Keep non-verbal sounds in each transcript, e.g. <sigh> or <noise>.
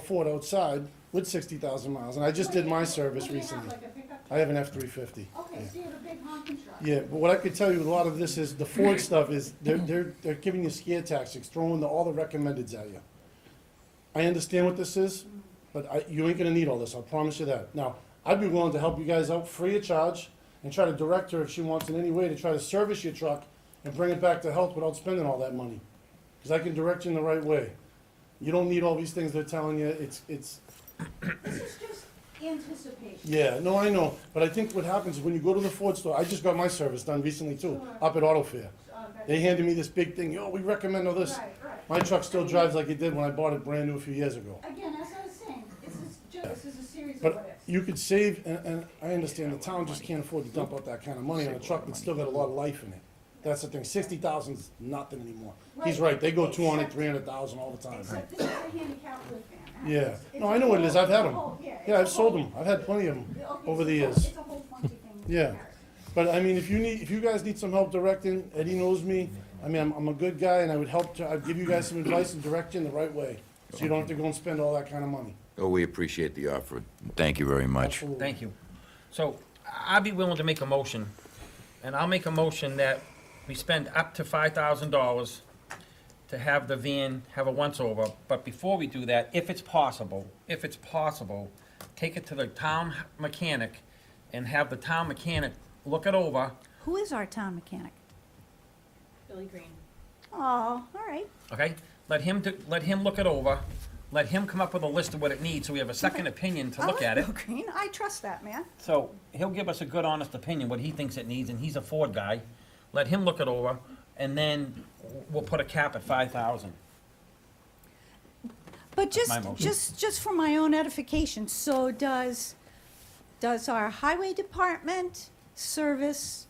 Ford outside with sixty thousand miles, and I just did my service recently. I have an F three fifty. Okay, so you have a big honking truck. Yeah, but what I could tell you, with a lot of this is, the Ford stuff is, they're, they're, they're giving you scare tactics, throwing the, all the recommendeds at you. I understand what this is, but I, you ain't gonna need all this, I promise you that. Now, I'd be willing to help you guys out free of charge, and try to direct her if she wants in any way to try to service your truck and bring it back to health without spending all that money. Cause I can direct you in the right way. You don't need all these things they're telling you, it's, it's, This is just anticipation. yeah, no, I know, but I think what happens is when you go to the Ford store, I just got my service done recently too, up at Auto Fair. Okay. They handed me this big thing, yo, we recommend all this. Uh, Right, right. My truck still drives like it did when I bought it brand new a few years ago. Again, as I was saying, this is just, this is a series of what But ifs. you could save, and, and I understand the town just can't afford to dump out that kind of money on a truck that's still got a lot of life in it. That's the thing, sixty thousand's nothing anymore. He's right, they go two hundred, three hundred thousand all the time. Except this is a handicap lift van. Yeah, It's no, a I know what it is, I've had them. whole- it's Yeah, a I've sold whole- them, I've had plenty of Okay, them it's over the a whole- years. It's a whole funky thing. in Yeah. comparison. But I mean, if you need, if you guys need some help directing, Eddie knows me. I mean, I'm, I'm a good guy and I would help to, I'd give you guys some advice and direct you in the right way. So you don't have to go and spend all that kind of money. Oh, we appreciate the offer. Thank you very much. Absolutely. Thank you. So I'd be willing to make a motion, and I'll make a motion that we spend up to five thousand dollars to have the van have a once-over, but before we do that, if it's possible, if it's possible, take it to the town mechanic and have the town mechanic look it over. Who is our town mechanic? Billy Green. Oh, all right. okay? Let him, do- let him look it over, let him come up with a list of what it needs, so we have a second opinion to I look like at it. Bill Green, I trust that man. So he'll give us a good, honest opinion, what he thinks it needs, and he's a Ford guy. Let him look it over, and then we'll put a cap at five thousand. But just, my motion. just, just for my own edification, so does, does our highway department service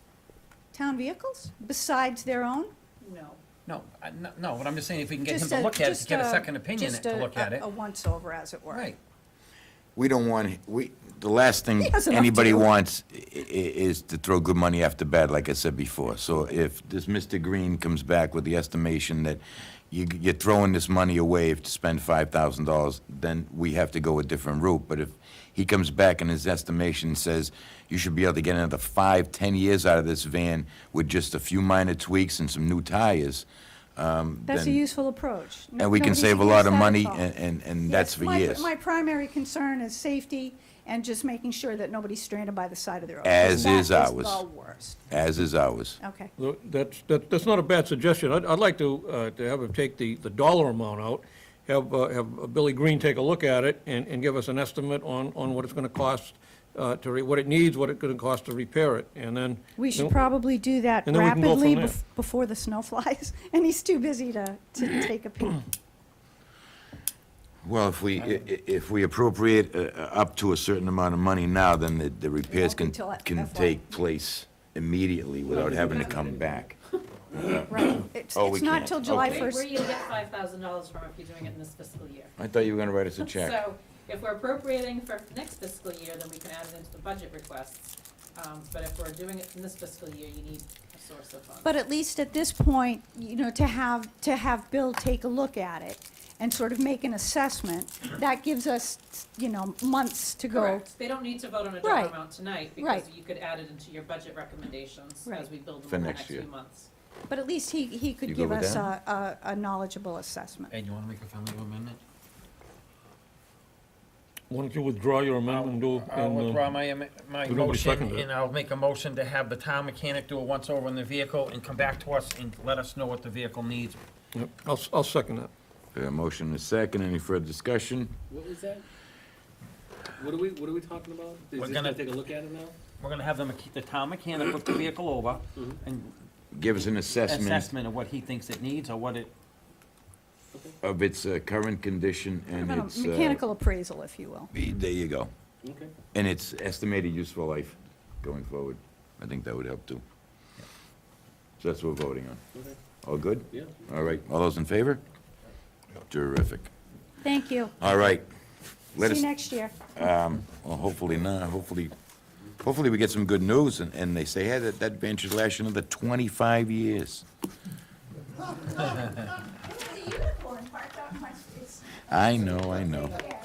town vehicles besides their own? No. No, I- no, no, but I'm just saying, if we can get him Just to a- look at it, to just get a second opinion just to a- look at a- it. A once-over, as it were. Right, We don't want, we, the last thing He has enough to anybody do. wants i- i- is to throw good money after bad, like I said before. So if this Mr. Green comes back with the estimation that you, you're throwing this money away if to spend five thousand dollars, then we have to go a different route. But if he comes back and his estimation says you should be able to get another five, ten years out of this van with just a few minor tweaks and some new tires, um, That's a then- useful approach. No- and we can nobody save a should use lot of that money, at all. and, and, and Yes, that's for my- years. My primary concern is safety and just making sure that nobody's stranded by the side of their road. 'cause As that is ours. the worst. as is ours. Okay. Tho- That's, that- that's not a bad suggestion. I'd, I'd like to, uh, to have him take the, the dollar amount out, have, uh, have Billy Green take a look at it and, and give us an estimate on, on what it's gonna cost, uh, to, re- what it needs, what it's gonna cost to repair it, and then. We should then- probably do that And then we can go rapidly from there. bef- before the snow <laughs> flies, and he's too busy to, to take a <coughs> peek. Well, if we, i- i- if we appropriate uh, uh, up to a certain amount of money now, then the- the repairs be can, till at- can FY. take place immediately without having to come back. Right. It's, Oh, we it's not can't. till July Okay. Where where first. you gonna get five thousand dollars from if you're doing it in this fiscal year? I thought you were gonna write us a check. So if we're appropriating for next fiscal year, then we can add it into the budget requests. Um, but if we're doing it in this fiscal year, you need a source of funds. But at least at this point, you know, to have, to have Bill take a look at it and sort of make an assessment, that gives us, you know, months to go. Correct. They don't need to vote on a dollar Right. amount tonight because Right. you could add it into your budget recommendations Right. as we build them For in the next next few year. months. But at least he, he You could good give with us that? a, a a knowledgeable assessment. Ed, you wanna make a friendly amendment? Why don't you withdraw your amendment and do? I'll and, uh, withdraw my, am- my Nobody motion, seconded it. and I'll make a motion to have the town mechanic do a once-over on the vehicle and come back to us and let us know what the vehicle needs. yeah, I'll, s- I'll second that. Okay, a motion and a second, any further discussion? What was that? What are we, what are we talking about? We're Is this gonna- gonna take a look at it now? We're gonna have the, mech- the town mechanic look the vehicle over Mm-hmm. and Give us an assessment assessment of what he thinks it needs or what it, of its uh, current condition and Kind of its. uh, Mechanical appraisal, if you will. be- There you go. Okay. And its estimated useful life going forward. I think that would help too. So that's what we're voting on. Okay. All good? Yeah. All right, all those in favor? Terrific. Thank you. All right. Let See us, um, you next year. well, hopefully not, hopefully, hopefully we get some good news, and, and they say, hey, that, that bench is lasting another twenty-five years. There's a unicorn parked out in my space. I know, I know. Yeah.